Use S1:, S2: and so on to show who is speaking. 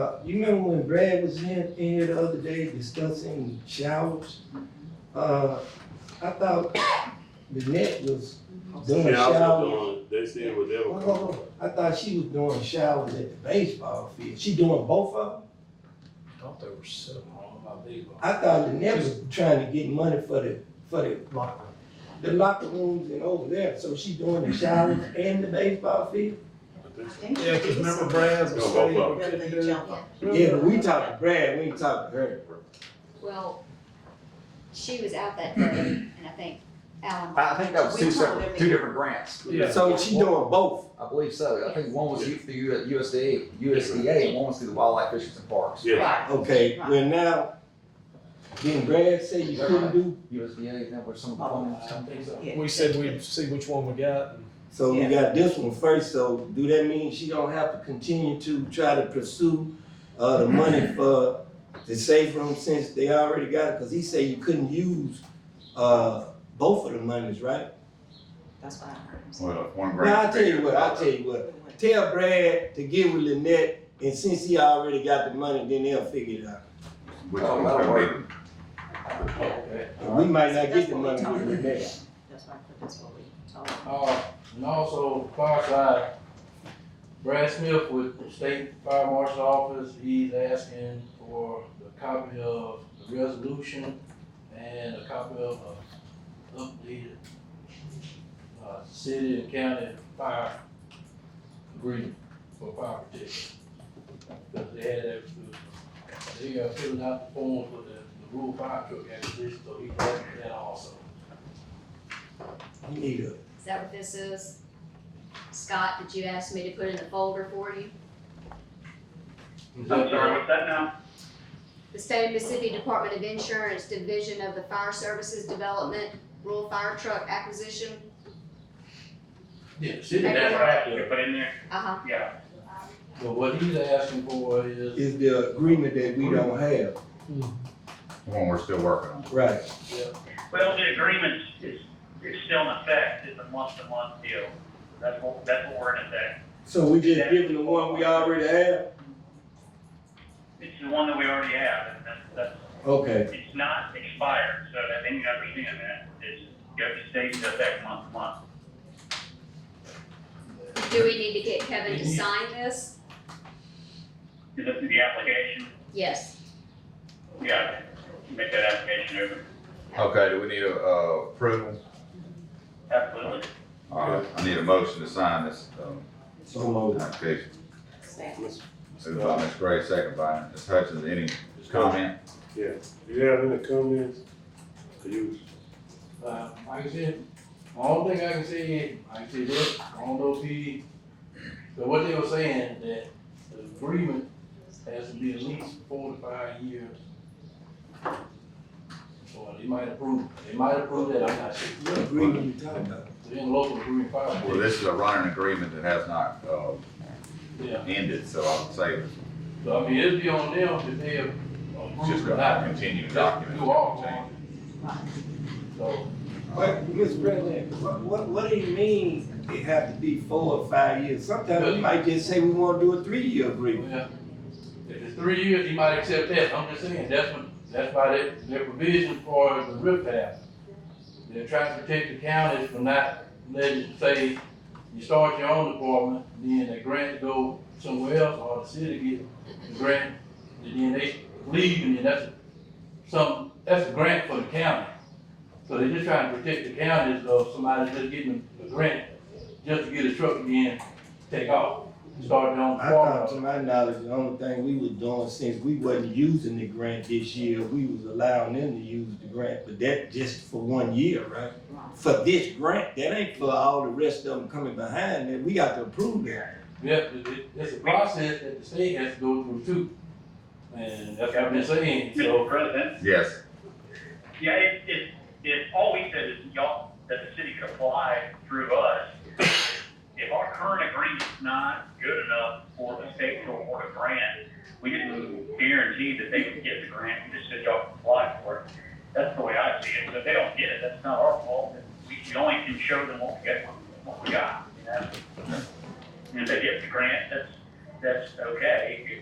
S1: Uh, you remember when Brad was in, in here the other day discussing showers? Uh, I thought Lynette was doing
S2: Yeah, I
S1: showers.
S2: was doing, they said whatever.
S1: Hold on, hold on. I thought she was doing showers at the baseball field. She doing both of them?
S3: Thought they were seven on my baseball.
S1: I thought Lynette was trying to get money for the, for the,
S3: Locker
S1: the locker rooms and over there. So she doing the showers and the baseball field?
S2: I think so.
S3: room. Yeah, cause remember Brad's was
S2: No,
S3: saying
S2: both
S3: we
S2: of
S3: couldn't
S4: They
S3: do.
S4: jump up.
S1: Yeah, but we talked to Brad, we ain't talked to her.
S5: Well, she was out that day, and I think Alan.
S6: I think that was two
S4: We told
S6: separate,
S4: them
S6: two
S4: we-
S6: different grants.
S3: Yeah.
S1: So she doing both.
S6: I believe so. I think one was through the U- USDA, USDA, and one was through the Wildlife Fisheries and Parks.
S2: Yeah,
S4: Right.
S1: Okay, well now, didn't Brad say you couldn't do,
S6: USDA, is that where some of the funds?
S3: it.
S4: Yeah.
S3: We said we'd see which one we got.
S1: so we
S4: Yeah.
S1: got this one first, so do that mean she don't have to continue to try to pursue uh, the money for the safe room since they already got it? Cause he said you couldn't use, uh, both of the monies, right?
S4: That's what I heard him say.
S7: Well, if one grant.
S1: Now, I'll tell you what, I'll tell you what, tell Brad to get with Lynette, and since he already got the money, then they'll figure it out.
S7: Which one's gonna be,
S3: Oh,
S1: And we might not get
S4: That's
S1: the
S4: what we
S1: money
S4: told
S1: with
S4: him.
S1: Lynette.
S4: That's right, but that's what we told him.
S8: Uh, and also fire side, Brad Smith with the state fire marshal's office, he's asking for a copy of the resolution and a copy of a updated, uh, city and county fire agreement for fire protection. Because they had that, uh, they are filling out the form for the, the rural fire truck acquisition, so he's asking that also.
S1: You need a
S5: Is that what this is? Scott, did you ask me to put in the folder for you?
S8: I'm
S9: what's that now?
S5: The State of Mississippi Department of Insurance Division of the Fire Services Development Rural Fire Truck Acquisition.
S8: Yeah, the city,
S5: That's
S8: that's
S5: right.
S8: right,
S9: You put in there?
S5: Uh-huh.
S9: Yeah.
S8: But what he's asking for is,
S1: is the agreement that we don't have.
S7: the one we're still working on?
S1: Right.
S9: Well, the agreement is, is still in effect, it's a month-to-month deal. That's what, that's what we're in effect.
S1: So we just giving the one we already have?
S9: It's the one that we already have, and that's, that's,
S1: Okay,
S9: it's not expired, so that, and you understand that, it's, you have to stay in effect month-to-month.
S5: Do we need to get Kevin to sign this?
S9: Is this the application?
S5: Yes.
S9: Yeah, make that application over.
S7: Okay, do we need a, uh, approval?
S9: Absolutely.
S7: All right, Uh, I need a motion to sign this, um,
S1: so moved.
S7: application.
S4: Staff.
S7: Moved by Ms. Gray, second by Ms. Hutchins, any comment?
S2: You have any comments? Are you,
S8: uh, like I said, the only thing I can say, I can say this, I don't know if he, but what they were saying, that the agreement has to be at least four to five years. Or they might approve, they might approve that, I'm not sure,
S1: What agreement you talking about?
S8: they're in local agreement fire.
S7: Well, this is a running agreement that has not, uh,
S8: Yeah,
S7: ended, so I would say
S8: so I mean, it'd be on them if they
S7: it's just
S8: approve or
S7: a
S8: not.
S7: continuing
S8: That's
S7: document.
S8: do all of so,
S1: What, Ms. President, what, what, what do you mean it have to be four or five years? Sometimes we might just say we wanna do a three-year agreement.
S8: yeah. If it's three years, he might accept that, I'm just saying, that's what, that's why they, their provision for the rip pass. They're trying to protect the counties from not letting, say, you start your own department, then the grant go somewhere else, or the city get the grant, and then they leave, and then that's some, that's a grant for the county. So they're just trying to protect the counties of somebody just getting a grant, just to get a truck again, take off, start their own
S1: I
S8: department.
S1: thought, to my knowledge, the only thing we was doing since we wasn't using the grant this year, we was allowing them to use the grant, but that just for one year, right? For this grant, that ain't for all the rest of them coming behind, that we got to approve that.
S8: Yeah, it, it, it's a process that the state has to go through too. And that's what I've been saying,
S9: Mr.
S8: so,
S9: President?
S7: Yes,
S9: Yeah, if, if, if all we said is y'all, that the city could apply through us, if our current agreement's not good enough for the state to award a grant, we didn't guarantee that they would get the grant, we just said y'all can apply for it. That's the way I see it, so if they don't get it, that's not our fault, we, we only can show them what we got, what we got, you know? And if they get the grant, that's, that's okay,